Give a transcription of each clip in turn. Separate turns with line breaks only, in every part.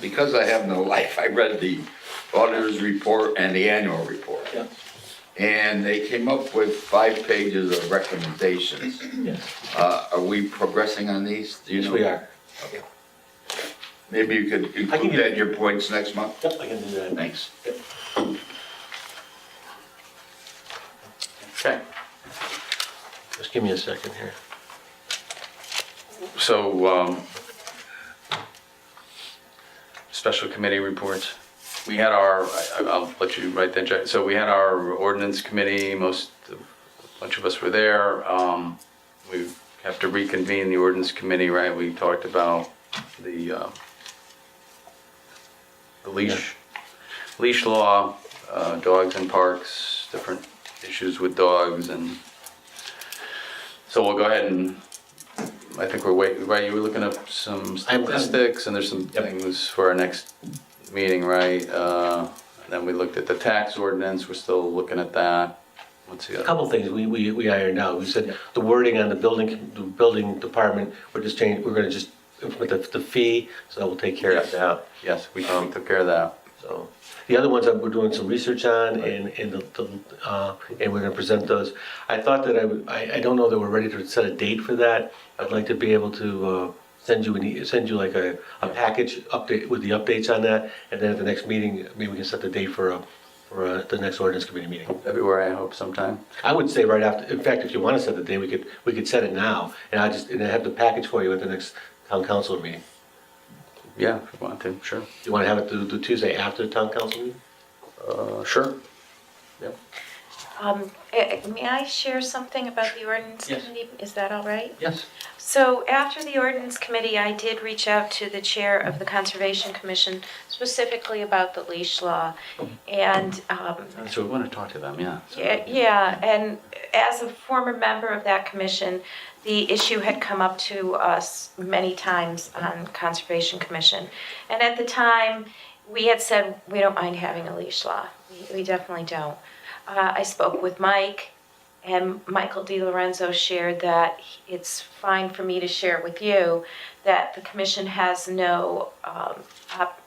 because I have no life, I read the auditor's report and the annual report.
Yes,
And they came up with five pages of recommendations.
yes.
Uh, are we progressing on these? Do you
Yes,
know?
we are.
Maybe you could include
you-
that in your points next month?
Yep, I can do that.
Thanks.
Okay. Just give me a second here.
So, um, special committee reports. We had our, I- I'll let you write that, Jack. So we had our ordinance committee, most, a bunch of us were there. Um, We have to reconvene the ordinance committee, right? We talked about the uh, the leash, leash law, uh, dogs in parks, different issues with dogs and, so we'll go ahead and I think we're wait, right, you were looking up some
I will.
statistics and there's some
Yep.
things for our next meeting, right? Uh, and then we looked at the tax ordinance, we're still looking at that. What's the
A
other?
couple things we, we, we ironed out. We said the wording on the building, the building department, we're just changing, we're gonna just, implement the, the fee, so we'll take care of
Yes.
that.
Yes, we we took care of that.
So, the other ones that we're doing some research on and, and the- the, uh, and we're gonna present those. I thought that I would, I, I don't know that we're ready to set a date for that. I'd like to be able to, uh, send you an, e- send you like a, a package update with the updates on that. And then at the next meeting, maybe we can set the date for a, for uh the next ordinance committee meeting.
February, I hope sometime.
I would say right after, in fact, if you wanna set the date, we could, we could set it now. And I just, and I have the package for you at the next town council meeting.
Yeah, if you want to, sure.
You wanna have it the, the Tuesday after the town council meeting?
Uh, sure. Yep.
Um, eh, eh, May I share something about the ordinance
Yes.
committee? Is that all right?
Yes.
So after the ordinance committee, I did reach out to the chair of the Conservation Commission specifically about the leash law. And um,
So we want to talk to them, yeah. So-
yeah, yeah, and as a former member of that commission, the issue had come up to us many times on Conservation Commission. And at the time, we had said, we don't mind having a leash law. We- We definitely don't. Uh, I spoke with Mike, and Michael Di Lorenzo shared that he- it's fine for me to share with you that the commission has no, um, op,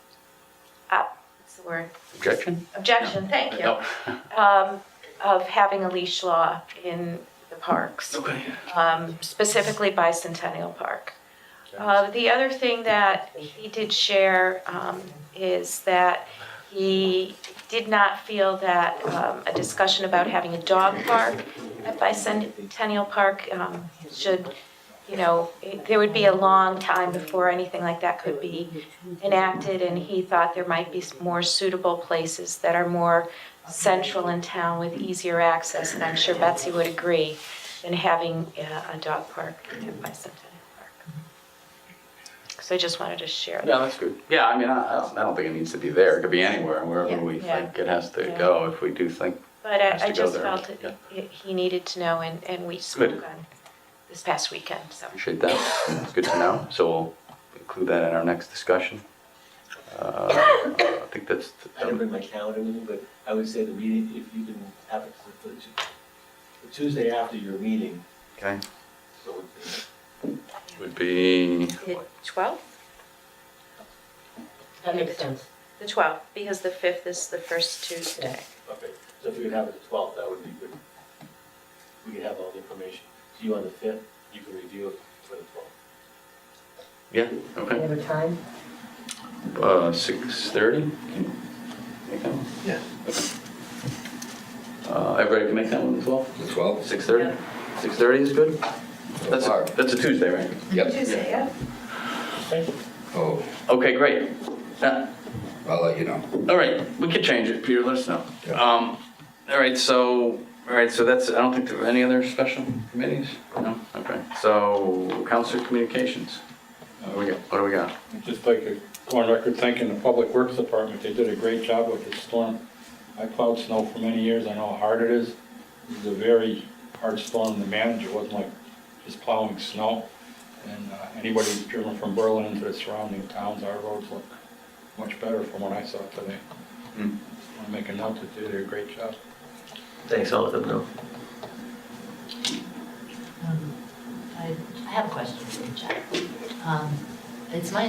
op, what's the word?
Objection?
Objection, thank you
No.
um, of having a leash law in the parks,
Okay.
um, specifically Bicentennial Park. Uh, The other thing that he did share um, is that he did not feel that um, a discussion about having a dog park at Bicentennial Park um, should, you know, it- there would be a long time before anything like that could be enacted, and he thought there might be s- more suitable places that are more central in town with easier access, and I'm sure Betsy would agree, than having uh, a dog park at Bicentennial Park. So I just wanted to share that.
Yeah, that's good. Yeah, I mean, I, I don't- I don't think it needs to be there. It could be anywhere, wherever
Yeah.
we
Yeah.
think it has to
Yeah.
go, if we do think.
But
Has
I, I
to go
just
there,
felt it-
yeah.
it- he needed to know, and, and we spoke
Good.
on this past weekend, so.
Appreciate that. It's good to know. So we'll include that in our next discussion. Uh, I think that's,
I didn't bring my calendar with me, but I would say the meeting, if you can have it for the the Tuesday after your meeting,
okay,
so
would be,
The 12th?
That makes sense.
The 12th, because the 5th is the first Tuesday.
Okay, so if you could have it the twelfth, that would be good. We could have all the information. So you on the fifth, you can review it for the twelfth.
yeah,
Do you
okay.
have a time?
Uh, six thirty?
Yeah.
Uh, everybody can make that one as well?
The 12?
Six thirty? Six thirty is good? That's,
far.
a- that's a Tuesday, right?
Yep.
Tuesday, yeah.
Oh,
Okay, great. Uh,
I'll let you know.
All right, we could change it, Peter, let us know.
Yeah.
Um, all right, so, all right, so that's, I don't think there are any other special committees? No, okay, so, council communications, what do we got, what do we got?
I'd Just like to go on record thanking the Public Works Department, they did a great job with the storm. I plowed snow for many years, I know how hard it is. It was a very hard storm to manage, it wasn't like just plowing snow. And uh, anybody who's driven from Berlin to the surrounding towns, our roads look much better from what I saw today.
Hmm.
I make a note that they did a great job.
Thanks, I'll let them know.
Um, I I have a question for you, Jack. Um, It's my